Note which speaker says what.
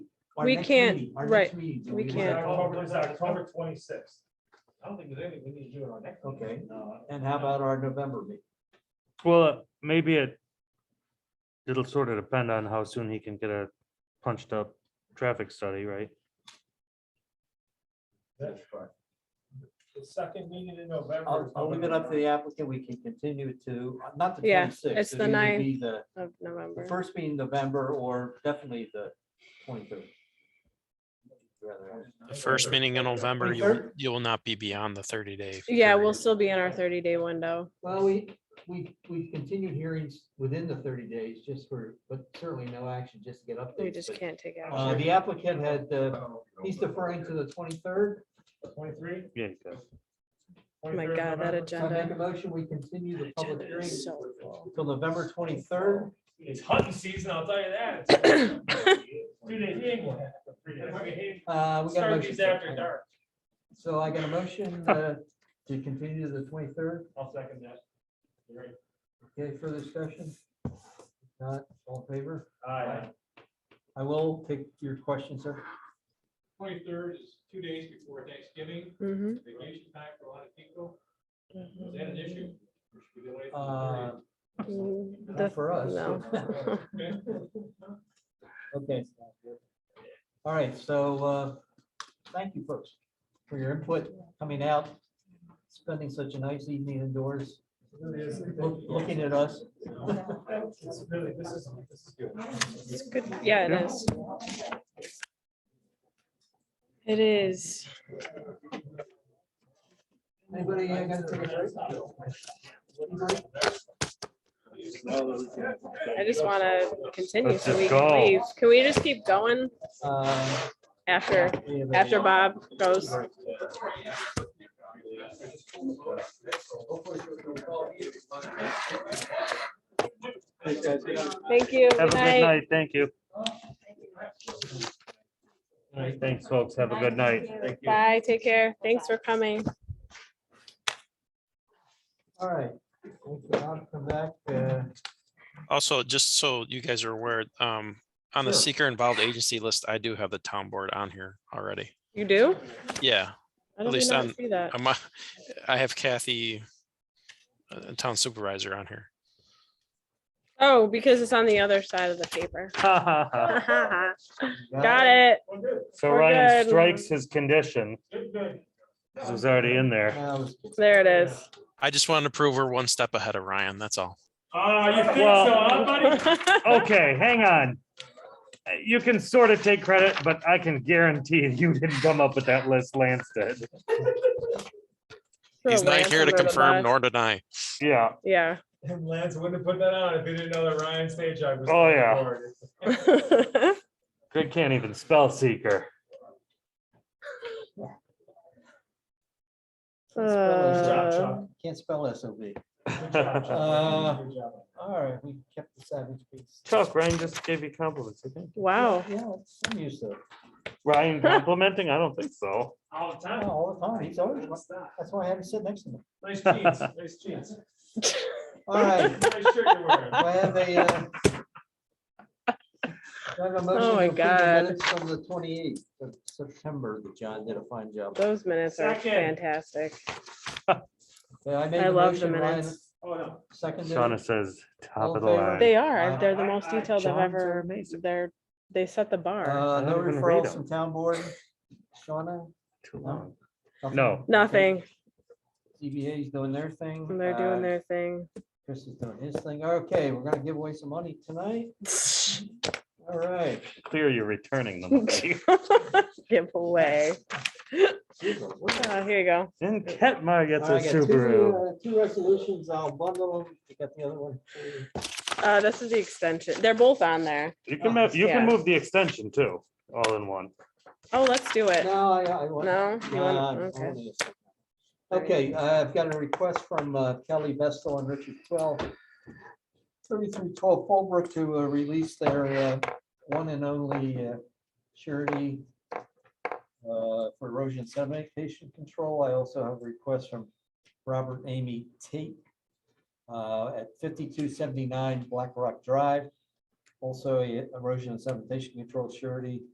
Speaker 1: our
Speaker 2: We
Speaker 1: next
Speaker 2: can't-
Speaker 1: meeting- our
Speaker 2: right,
Speaker 1: next meeting, do
Speaker 2: we
Speaker 1: want-
Speaker 2: can't.
Speaker 3: October, it's October twenty-sixth. I don't think there's anything we need to do in our next.
Speaker 1: Okay.
Speaker 3: meeting. No.
Speaker 1: And how about our November meeting?
Speaker 4: Well, uh, maybe it. It'll sort of depend on how soon he can get a punched up traffic study, right?
Speaker 3: That's
Speaker 1: correct.
Speaker 3: The second meeting in November.
Speaker 1: I'll,
Speaker 3: is
Speaker 1: I'll leave it up to the applicant. We can continue to, uh, not the
Speaker 2: Yeah,
Speaker 1: twenty-sixth.
Speaker 2: it's the ninth.
Speaker 1: Be the
Speaker 2: of
Speaker 1: the
Speaker 2: November.
Speaker 1: first being November or definitely the twenty-third. Rather,
Speaker 5: The first meeting in November, you will,
Speaker 1: 23rd?
Speaker 5: you will not be beyond the thirty day.
Speaker 2: Yeah, we'll
Speaker 5: period.
Speaker 2: still be in our thirty day window.
Speaker 1: Well, we, we, we continued hearings within the thirty days just for, but certainly no action, just to get updates.
Speaker 2: We just
Speaker 1: but,
Speaker 2: can't take
Speaker 4: Um,
Speaker 1: Uh,
Speaker 2: action.
Speaker 1: the applicant had, uh, he's deferring to the twenty-third.
Speaker 3: Twenty-three?
Speaker 4: Yeah. you got it.
Speaker 2: Oh My God, that
Speaker 1: I make a
Speaker 2: agenda.
Speaker 1: motion, we continue the public
Speaker 2: agenda
Speaker 1: hearing
Speaker 2: is so full.
Speaker 1: till November twenty-third.
Speaker 3: It's hunting season, I'll tell you that. Two days, he ain't gonna have three days. He
Speaker 1: Uh, we got a
Speaker 3: Start
Speaker 1: motion.
Speaker 3: these after
Speaker 1: second.
Speaker 3: dark.
Speaker 1: So I got a motion, uh, to continue to the twenty-third.
Speaker 3: I'll second that. You're right.
Speaker 1: Okay, further discussion? If Not all in favor?
Speaker 3: Aye.
Speaker 1: I will take your question, sir.
Speaker 6: Twenty-third is two days before Thanksgiving,
Speaker 4: Mm-hmm.
Speaker 2: Mhm.
Speaker 6: vacation time for a lot of people. Is that an issue? Or should we delay it
Speaker 1: Uh,
Speaker 6: till
Speaker 2: Mm,
Speaker 1: not
Speaker 2: the-
Speaker 1: For us.
Speaker 4: Uh,
Speaker 2: no.
Speaker 6: the 30th? Okay.
Speaker 1: Okay. All right, so uh, thank you folks for your input, coming out, spending such a nice evening indoors, look- looking at us.
Speaker 3: It's really- This is, this is good.
Speaker 2: It's good. Yeah, it is. It is.
Speaker 1: Anybody uh, got to
Speaker 2: I just want to continue
Speaker 4: Let's
Speaker 2: so
Speaker 4: just
Speaker 2: we can
Speaker 4: go.
Speaker 2: leave. Can we just keep going
Speaker 1: uh,
Speaker 2: after,
Speaker 1: we have a-
Speaker 2: after Bob goes? Thank you.
Speaker 4: Have
Speaker 2: Good
Speaker 4: a good night. Thank you. All right, Thanks, folks. Have a good night.
Speaker 2: Bye, take care. Thanks for coming.
Speaker 1: All right. Thank you, I'll Come back. uh,
Speaker 5: Also, just so you guys are aware, um, on the
Speaker 1: Sure.
Speaker 5: seeker involved agency list, I do have the town board on here already.
Speaker 2: You do?
Speaker 5: Yeah,
Speaker 2: I don't
Speaker 5: least
Speaker 2: even
Speaker 5: on-
Speaker 2: see that.
Speaker 5: I'm, a- I have Kathy, uh, town supervisor on here.
Speaker 2: Oh, because it's on the other side of the paper. Got it.
Speaker 3: Well, good,
Speaker 4: So
Speaker 2: We're
Speaker 4: Ryan
Speaker 2: good.
Speaker 4: strikes his condition.
Speaker 3: good, good.
Speaker 4: This was already in there.
Speaker 1: now,
Speaker 2: There it is.
Speaker 5: I just wanted to prove we're one step ahead of Ryan, that's all.
Speaker 3: Ah, you think so,
Speaker 4: Well-
Speaker 3: huh, buddy?
Speaker 4: Okay, hang on. Uh, You can sort of take credit, but I can guarantee you didn't come up with that list, Lance did.
Speaker 5: He's not here to
Speaker 2: Ransom wrote a
Speaker 5: confirm
Speaker 2: book.
Speaker 5: nor deny.
Speaker 4: Yeah,
Speaker 2: Yeah.
Speaker 3: And Lance wouldn't have put that on if he didn't know that Ryan stage I was.
Speaker 4: Oh, yeah.
Speaker 3: recorded.
Speaker 4: Greg can't even spell seeker.
Speaker 2: Uh,
Speaker 1: Can't spell SOB.
Speaker 3: Good job, Chuck.
Speaker 1: Uh,
Speaker 3: Good job.
Speaker 1: All right, we kept the savage piece.
Speaker 4: Chuck, Ryan just gave you compliments. okay?
Speaker 2: Wow.
Speaker 1: Yeah, I'm used to it.
Speaker 4: Ryan complimenting? I don't think so.
Speaker 3: All the
Speaker 1: Yeah,
Speaker 3: time.
Speaker 1: All the time. He's always,
Speaker 3: What's that?
Speaker 1: that's why I had to sit next to him.
Speaker 3: Nice jeans, nice jeans.
Speaker 1: All right.
Speaker 3: Nice shirt you're wearing.
Speaker 1: Do I have a, uh, do I have a motion
Speaker 2: Oh
Speaker 1: to
Speaker 2: my
Speaker 1: approve the
Speaker 2: God.
Speaker 1: minutes From the twenty-eighth of September, that John did a fine job.
Speaker 2: Those minutes are
Speaker 3: Second.
Speaker 2: fantastic.
Speaker 1: Okay, Uh, I made
Speaker 2: I
Speaker 1: the
Speaker 2: love the
Speaker 1: motion, Ryan,
Speaker 2: minutes.
Speaker 3: Oh, no.
Speaker 1: seconded.
Speaker 4: Shauna says top of the
Speaker 1: All in favor?
Speaker 4: line.
Speaker 2: They are. They're the
Speaker 3: I-
Speaker 2: most
Speaker 3: I-
Speaker 2: detailed I've
Speaker 4: Johns are
Speaker 2: ever,
Speaker 4: amazing.
Speaker 2: they're, they set the bar.
Speaker 1: Uh,
Speaker 4: I
Speaker 1: no
Speaker 4: don't even
Speaker 1: referrals
Speaker 4: read them.
Speaker 1: from town board. Shauna?
Speaker 4: Too
Speaker 1: No.
Speaker 4: long.
Speaker 1: nothing?
Speaker 4: No.
Speaker 2: Nothing.
Speaker 1: CBA is doing their thing.
Speaker 2: They're
Speaker 1: uh,
Speaker 2: doing their thing.
Speaker 1: Chris is doing his thing. Okay, we're gonna give away some money tonight. All right.
Speaker 4: Clear, you're returning them.
Speaker 2: Give away.
Speaker 1: Google, where's that?
Speaker 2: Uh, Here you go.
Speaker 4: And Ketmar gets
Speaker 1: All
Speaker 4: a
Speaker 1: right, I got two,
Speaker 4: Subaru.
Speaker 1: uh, Two resolutions, I'll bundle them. You got the other one.
Speaker 2: Uh, This is the extension. They're both on there.
Speaker 4: You can move, you
Speaker 2: Yeah.
Speaker 4: can move the extension too, all in one.
Speaker 2: Oh, let's do it.
Speaker 1: No, I, I. want-
Speaker 2: No? You
Speaker 1: Nah,
Speaker 2: wanna-
Speaker 1: I'm
Speaker 2: okay.
Speaker 1: holding it. Okay, uh, I've got a request from uh, Kelly Vestal and Richard Twell. Thirty-three twelve Fallbrook to uh, release their uh, one and only uh, surety uh, for erosion sedimentation control. I also have a request from Robert Amy Tate uh, at fifty-two seventy-nine Black Rock Drive. Also a erosion and sedimentation control surety